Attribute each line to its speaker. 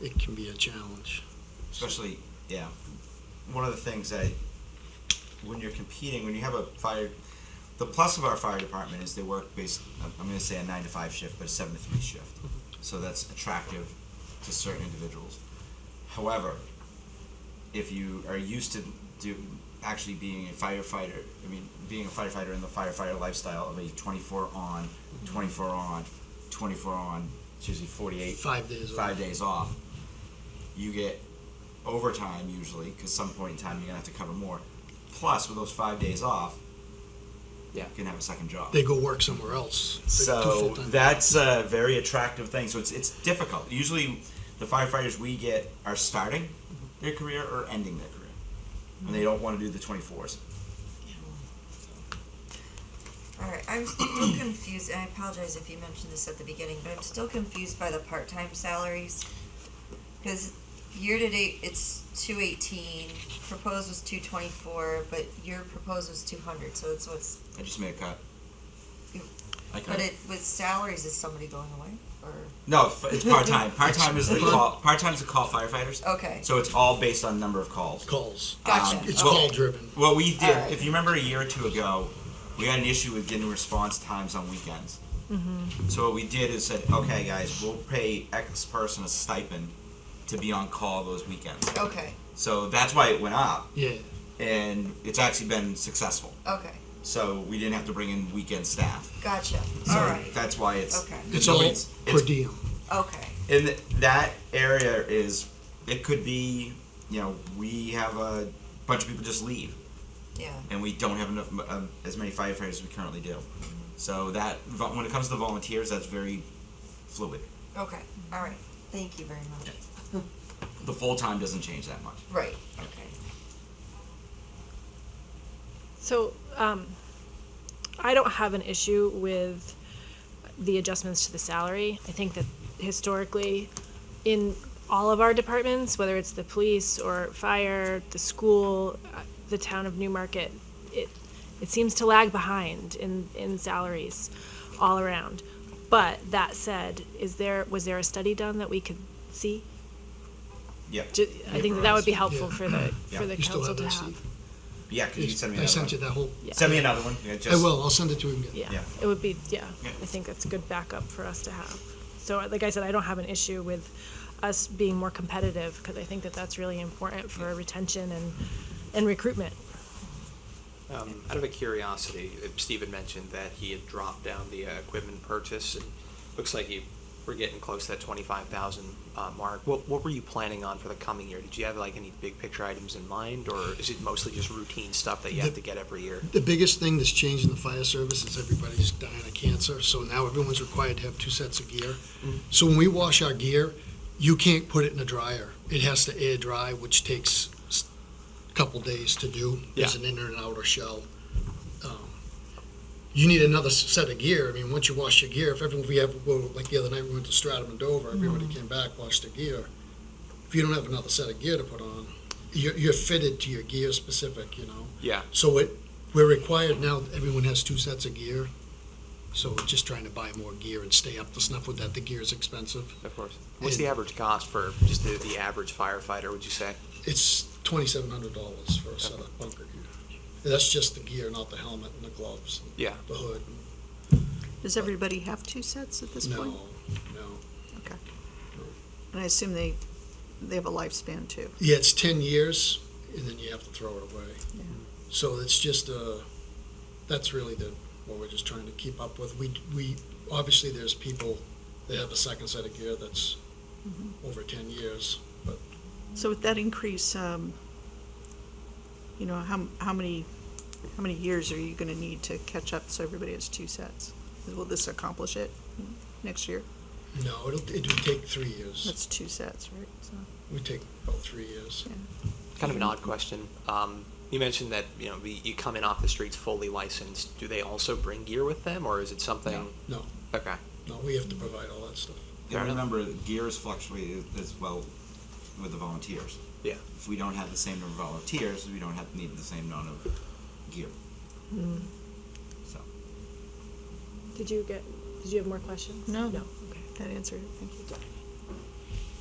Speaker 1: it can be a challenge.
Speaker 2: especially yeah one of the things that when you're competing when you have a fire the plus of our fire department is they work based i'm going to say a 9 to 5 shift but a 7 to 3 shift so that's attractive to certain individuals however if you are used to do actually being a firefighter i mean being a firefighter in the firefighter lifestyle of a 24 on 24 on 24 on it's usually 48
Speaker 1: Five days.
Speaker 2: five days off, you get overtime usually because some point in time you're gonna have to cover more. Plus, with those five days off, yeah, you can have a second job.
Speaker 1: They go work somewhere else. They do
Speaker 2: So
Speaker 1: full-time.
Speaker 2: that's a very attractive thing. So it's it's difficult. Usually, the firefighters we get are starting their career or ending their career, and they don't want to do the twenty fours.
Speaker 3: All right, I'm still confused, and I apologize if you mentioned this at the beginning, but I'm still confused by the part-time salaries. Because year-to-date, it's two eighteen, proposed was two twenty-four, but your proposed was two hundred, so it's what's,
Speaker 2: I just made a cut. I cut.
Speaker 3: but it, with salaries, is somebody going away, or,
Speaker 2: no, f- it's part time. Part time is the
Speaker 1: It's-
Speaker 2: call. Part time is the call firefighters.
Speaker 3: okay,
Speaker 2: So it's all based on number of calls.
Speaker 1: Calls.
Speaker 3: gotcha.
Speaker 1: Um, It's
Speaker 2: well-
Speaker 1: call driven.
Speaker 2: Well, we did.
Speaker 3: Alright.
Speaker 2: If you remember a year or two ago, we had an issue with getting response times on weekends.
Speaker 3: Mm-hmm.
Speaker 2: So what we did is said, okay, guys, we'll pay X person a stipend to be on call those weekends.
Speaker 3: Okay,
Speaker 2: So that's why it went up,
Speaker 1: Yeah.
Speaker 2: and it's actually been successful.
Speaker 3: okay,
Speaker 2: So we didn't have to bring in weekend staff.
Speaker 3: gotcha,
Speaker 2: So
Speaker 3: all right,
Speaker 2: that's why it's
Speaker 3: Okay.
Speaker 1: It's
Speaker 2: no,
Speaker 1: all
Speaker 2: it's,
Speaker 1: per
Speaker 2: it's
Speaker 1: diem.
Speaker 3: okay,
Speaker 2: in th- that area is it could be you know we have a bunch of people just leave.
Speaker 3: yeah,
Speaker 2: and we don't have enough um, as many firefighters as we currently do. So that vo- when it comes to volunteers, that's very fluid.
Speaker 3: okay, all right, thank you very much.
Speaker 2: The full time doesn't change that much.
Speaker 3: Right, okay.
Speaker 4: So, um, I don't have an issue with the adjustments to the salary. I think that historically, in all of our departments, whether it's the police or fire, the school, uh, the town of Newmarket, it, it seems to lag behind in, in salaries all around. But that said, is there, was there a study done that we could see?
Speaker 2: Yeah,
Speaker 4: Ju- I think that, that would be helpful
Speaker 1: Yeah.
Speaker 4: for the,
Speaker 2: Yeah.
Speaker 4: for the
Speaker 1: You still
Speaker 4: council
Speaker 1: have
Speaker 4: to
Speaker 1: that,
Speaker 4: have.
Speaker 1: Steve?
Speaker 2: yeah. Cause you send me
Speaker 1: I
Speaker 2: another
Speaker 1: sent you
Speaker 2: one.
Speaker 1: that whole.
Speaker 4: Yeah.
Speaker 2: Send me another one. Yeah,
Speaker 1: I
Speaker 2: just,
Speaker 1: will. I'll send it to him again.
Speaker 4: Yeah,
Speaker 2: Yeah.
Speaker 4: it would be, yeah,
Speaker 2: Yeah.
Speaker 4: I think that's a good backup for us to have. So, uh, like I said, I don't have an issue with us being more competitive, because I think that that's really important for retention and, and recruitment.
Speaker 5: Um, out of a curiosity, uh, Steve had mentioned that he had dropped down the uh, equipment purchase, and looks like you were getting close to that twenty-five thousand uh, mark. What what were you planning on for the coming year? Did you have like any big picture items in mind, or is it mostly just routine stuff that you have to get every year?
Speaker 1: The biggest thing that's changed in the fire service is everybody's dying of cancer, so now everyone's required to have two sets of gear.
Speaker 5: Mm-hmm.
Speaker 1: So when we wash our gear, you can't put it in a dryer. It has to air dry, which takes s- a couple days to do. There's
Speaker 5: Yeah.
Speaker 1: an inner and outer shell. Um, You need another s- set of gear. I mean, once you wash your gear, if everyone, we have, well, like the other night, we went to Stratham and Dover, everybody
Speaker 5: Mm-hmm.
Speaker 1: came back, washed their gear. If you don't have another set of gear to put on, you're, you're fitted to your gear specific, you know?
Speaker 5: Yeah.
Speaker 1: So it, we're required now, everyone has two sets of gear, so we're just trying to buy more gear and stay up to snuff with that, the gear is expensive.
Speaker 5: Of course. What's the average cost for just the, the average firefighter? Would you say?
Speaker 1: It's twenty-seven hundred dollars for a set of bunker gear. And That's just the gear, not the helmet and the gloves, and
Speaker 5: Yeah.
Speaker 1: the hood,
Speaker 6: Does everybody have two sets at this
Speaker 1: no,
Speaker 6: point?
Speaker 1: no.
Speaker 6: And I assume they, they have a lifespan too.
Speaker 1: Yeah, it's ten years, and then you have to throw it away.
Speaker 6: Yeah.
Speaker 1: So it's just, uh, that's really the, what we're just trying to keep up with. We, we, obviously, there's people that have a second set of gear that's over ten years.
Speaker 6: So with that increase, um, you know, how, how many, how many years are you gonna need to catch up so everybody has two sets? Will this accomplish it next year?
Speaker 1: No, it'll, it would take three years.
Speaker 6: That's two sets, right? So,
Speaker 1: It would take about three years.
Speaker 5: Kind of an odd question. Um, you mentioned that you know the, you come in off the streets fully licensed. Do they also bring gear with them, or is it something?
Speaker 1: No.
Speaker 5: Okay.
Speaker 1: No, we have to provide all that stuff.
Speaker 2: And
Speaker 5: Fair enough.
Speaker 2: remember, gears fluctuate as well with the volunteers.
Speaker 5: Yeah.
Speaker 2: If we don't have the same number of volunteers, we don't have need the same amount of gear.
Speaker 4: Mm.
Speaker 2: So
Speaker 4: Did you get, did you have more questions?
Speaker 6: No.
Speaker 4: No, okay.
Speaker 6: that answered it, thank you.